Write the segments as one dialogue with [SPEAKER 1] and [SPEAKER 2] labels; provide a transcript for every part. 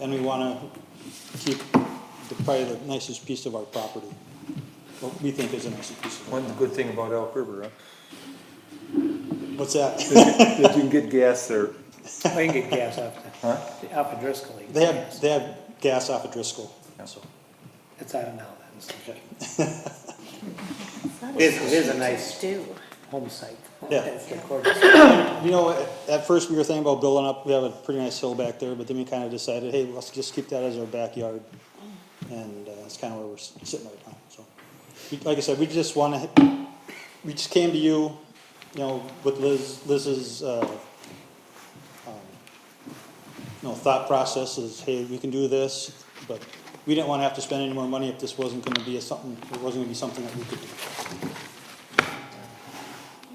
[SPEAKER 1] And we want to keep the, probably the nicest piece of our property, what we think is the nicest piece of our,
[SPEAKER 2] One good thing about Elk River,
[SPEAKER 1] what's that?
[SPEAKER 2] huh? Is you can get gas there.
[SPEAKER 3] I can get gas up,
[SPEAKER 2] Huh?
[SPEAKER 3] up at Driscoll. you can
[SPEAKER 1] They
[SPEAKER 3] get
[SPEAKER 1] have,
[SPEAKER 3] gas.
[SPEAKER 1] they have gas off of Driscoll, so.
[SPEAKER 3] It's out of now, that's
[SPEAKER 1] okay.
[SPEAKER 4] That
[SPEAKER 3] It is- it is a nice-
[SPEAKER 4] Do.
[SPEAKER 3] home site.
[SPEAKER 1] Yeah.
[SPEAKER 3] That's the courtyard.
[SPEAKER 1] You know, at- at first we were thinking about building up, we have a pretty nice hill back there, but then we kind of decided, hey, let's just keep that as our backyard. And uh, that's kind of where we're s- sitting right now, so. We- Like I said, we just want to, we just came to you, you know, with Liz, Liz's, uh, um, you know, thought process is, hey, we can do this, but we didn't want to have to spend any more money if this wasn't going to be a something, it wasn't going to be something that we could do.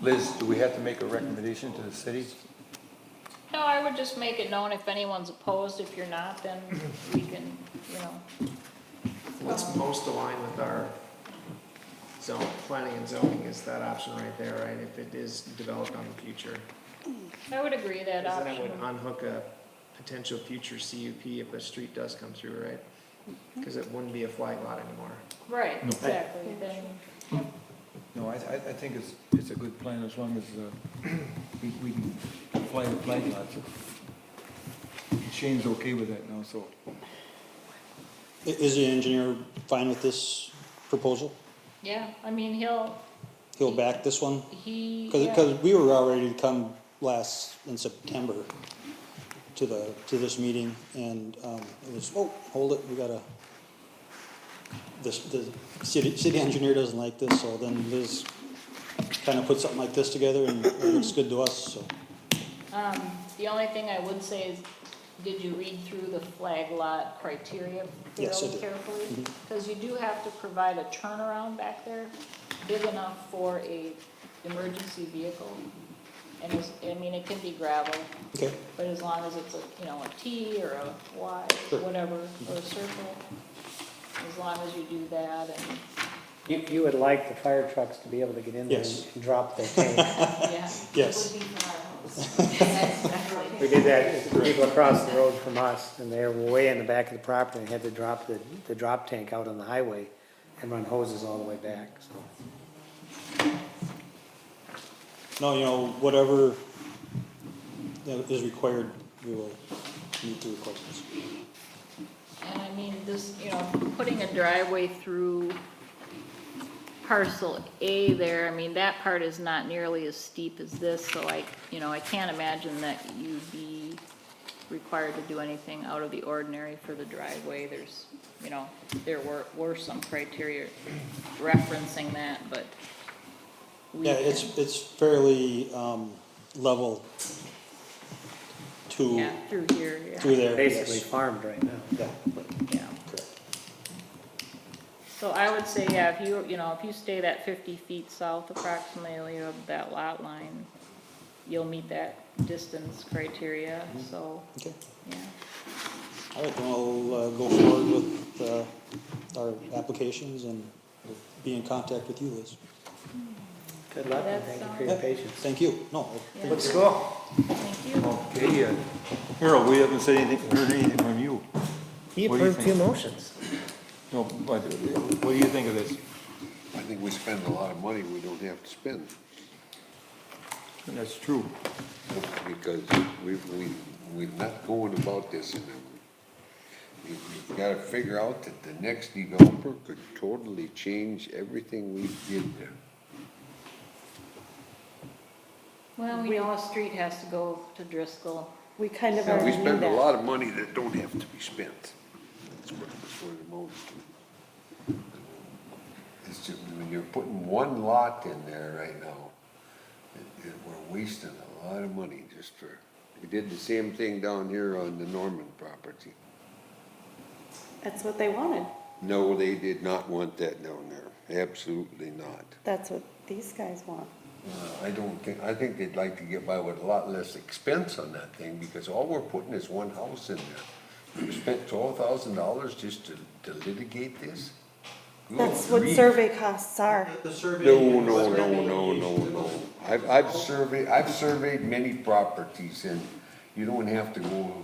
[SPEAKER 2] Liz, do we have to make a recommendation to the city?
[SPEAKER 5] No, I would just make it known if anyone's opposed, if you're not, then we can, you know,
[SPEAKER 6] Let's post a line with our zone, planning and zoning is that option right there, right? If it is developed on the future.
[SPEAKER 5] I would agree that
[SPEAKER 6] Because then it
[SPEAKER 5] option.
[SPEAKER 6] would unhook a potential future CUP if the street does come through, right?
[SPEAKER 5] Mm-hmm.
[SPEAKER 6] Because it wouldn't be a flag lot anymore.
[SPEAKER 5] Right, exactly, then,
[SPEAKER 2] No, I, I, I think it's, it's a good plan as long as, uh, we, we can apply the flag lots. Shane's okay with that now, so.
[SPEAKER 1] I- Is the engineer fine with this proposal?
[SPEAKER 5] yeah, I mean, he'll,
[SPEAKER 1] He'll back this one?
[SPEAKER 5] he,
[SPEAKER 1] Because,
[SPEAKER 5] yeah.
[SPEAKER 1] we were all ready to come last, in September, to the, to this meeting, and, um, it was, oh, hold it, we gotta, this, the city, city engineer doesn't like this, so then Liz kinda put something like this together, and it looks good to us, so.
[SPEAKER 5] Um, the only thing I would say is, did you read through the flag lot criteria
[SPEAKER 1] Yes, I
[SPEAKER 5] fairly
[SPEAKER 1] did. Mm-hmm.
[SPEAKER 5] carefully? Because you do have to provide a turnaround back there, big enough for a emergency vehicle. And it's, I mean, it can be gravel,
[SPEAKER 1] Okay,
[SPEAKER 5] But as long as it's a, you know, a T or a Y,
[SPEAKER 1] Sure.
[SPEAKER 5] whatever, or a circle, as long as you do that and,
[SPEAKER 3] You, you would like the fire trucks to be able to get in there
[SPEAKER 1] Yes.
[SPEAKER 3] and drop their tank.
[SPEAKER 5] yeah.
[SPEAKER 1] yes,
[SPEAKER 3] We did that, to people across the road from us, and they were way in the back of the property, and had to drop the, the drop tank out on the highway and run hoses all the way back, so.
[SPEAKER 1] no, you know, whatever that is required, we will meet the requirements.
[SPEAKER 5] And I mean, this, you know, putting a driveway through parcel A there, I mean, that part is not nearly as steep as this, so I, you know, I can't imagine that you'd be required to do anything out of the ordinary for the driveway, there's, you know, there were, were some criteria referencing that, but we
[SPEAKER 1] Yeah, it's, it's fairly, um, level to,
[SPEAKER 5] Yeah, through here,
[SPEAKER 1] through
[SPEAKER 5] yeah,
[SPEAKER 1] there,
[SPEAKER 3] Basically
[SPEAKER 1] yes.
[SPEAKER 3] farmed right now.
[SPEAKER 1] Yeah,
[SPEAKER 5] yeah.
[SPEAKER 1] correct.
[SPEAKER 5] So I would say, yeah, if you, you know, if you stay that fifty feet south approximately of that lot line, you'll meet that distance criteria, so,
[SPEAKER 1] Okay,
[SPEAKER 5] yeah.
[SPEAKER 1] all right, then I'll, uh, go forward with, uh, our applications and we'll be in contact with you, Liz.
[SPEAKER 3] Good luck, and
[SPEAKER 5] That
[SPEAKER 3] thank you for
[SPEAKER 5] sounds-
[SPEAKER 3] your patience.
[SPEAKER 1] Thank you, no,
[SPEAKER 5] yeah.
[SPEAKER 6] Let's go.
[SPEAKER 5] Thank you.
[SPEAKER 2] Okay, uh, Harold, we haven't said anything, heard anything from you.
[SPEAKER 3] He
[SPEAKER 2] What do you
[SPEAKER 3] approved two
[SPEAKER 2] think?
[SPEAKER 3] motions.
[SPEAKER 2] No, but what do you think of this?
[SPEAKER 7] I think we spend a lot of money we don't have to spend,
[SPEAKER 2] That's true.
[SPEAKER 7] because we, we, we're not going about this in a, you- you've gotta figure out that the next developer could totally change everything we did there.
[SPEAKER 5] Well, we know a street has to go to Driscoll.
[SPEAKER 4] We kind of
[SPEAKER 7] And we
[SPEAKER 4] already knew
[SPEAKER 7] spend a
[SPEAKER 4] that.
[SPEAKER 7] lot of money that don't have to be spent. That's what, that's what it amounts to. It's just, when you're putting one lot in there right now, it- it- we're wasting a lot of money just for, we did the same thing down here on the Norman property.
[SPEAKER 4] That's what they wanted.
[SPEAKER 7] No, they did not want that down there, absolutely not.
[SPEAKER 4] That's what these guys want.
[SPEAKER 7] Uh, I don't think, I think they'd like to get by with a lot less expense on that thing, because all we're putting is one house in there. We spent twelve thousand dollars just to, to litigate this? Good
[SPEAKER 4] That's what
[SPEAKER 7] grief.
[SPEAKER 4] survey costs are.
[SPEAKER 7] No, no, no, no, no, no. I've, I've surveyed, I've surveyed many properties, and you don't have to go